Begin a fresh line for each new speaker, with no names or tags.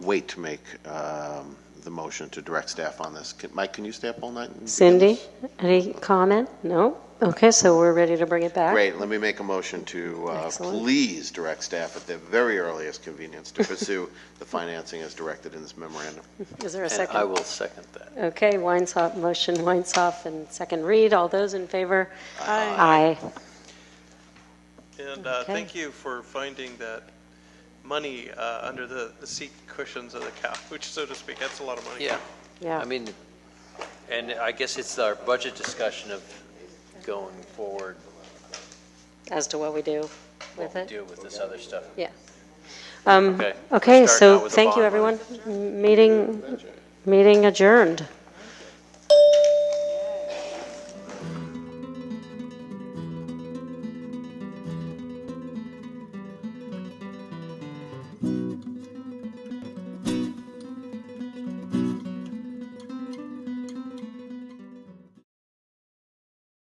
wait to make um, the motion to direct staff on this. Can- Mike, can you stay up all night? and begin
Cindy,
this?
any comment? No? Okay, so we're ready to bring it back?
Great, let me make a motion to uh,
Excellent.
please direct staff at the very earliest convenience to pursue the financing as directed in this memorandum.
Is there a
And I
second?
will second that.
Okay, Weinsoff, motion Weinsoff and second read. All those in favor? Aye.
And uh,
Okay.
thank you for finding that money uh, under the the seat cushions of the couch, so to speak. That's a lot of money.
Yeah,
Yeah,
I mean, and I guess it's our budget discussion of going forward,
as to what we do
what
with
we
it? Mm-hmm.
do with this other stuff.
Yeah. Um,
Okay.
Okay,
Start
so
out with the
thank you,
bond money.
everyone. M- Meeting, meeting adjourned.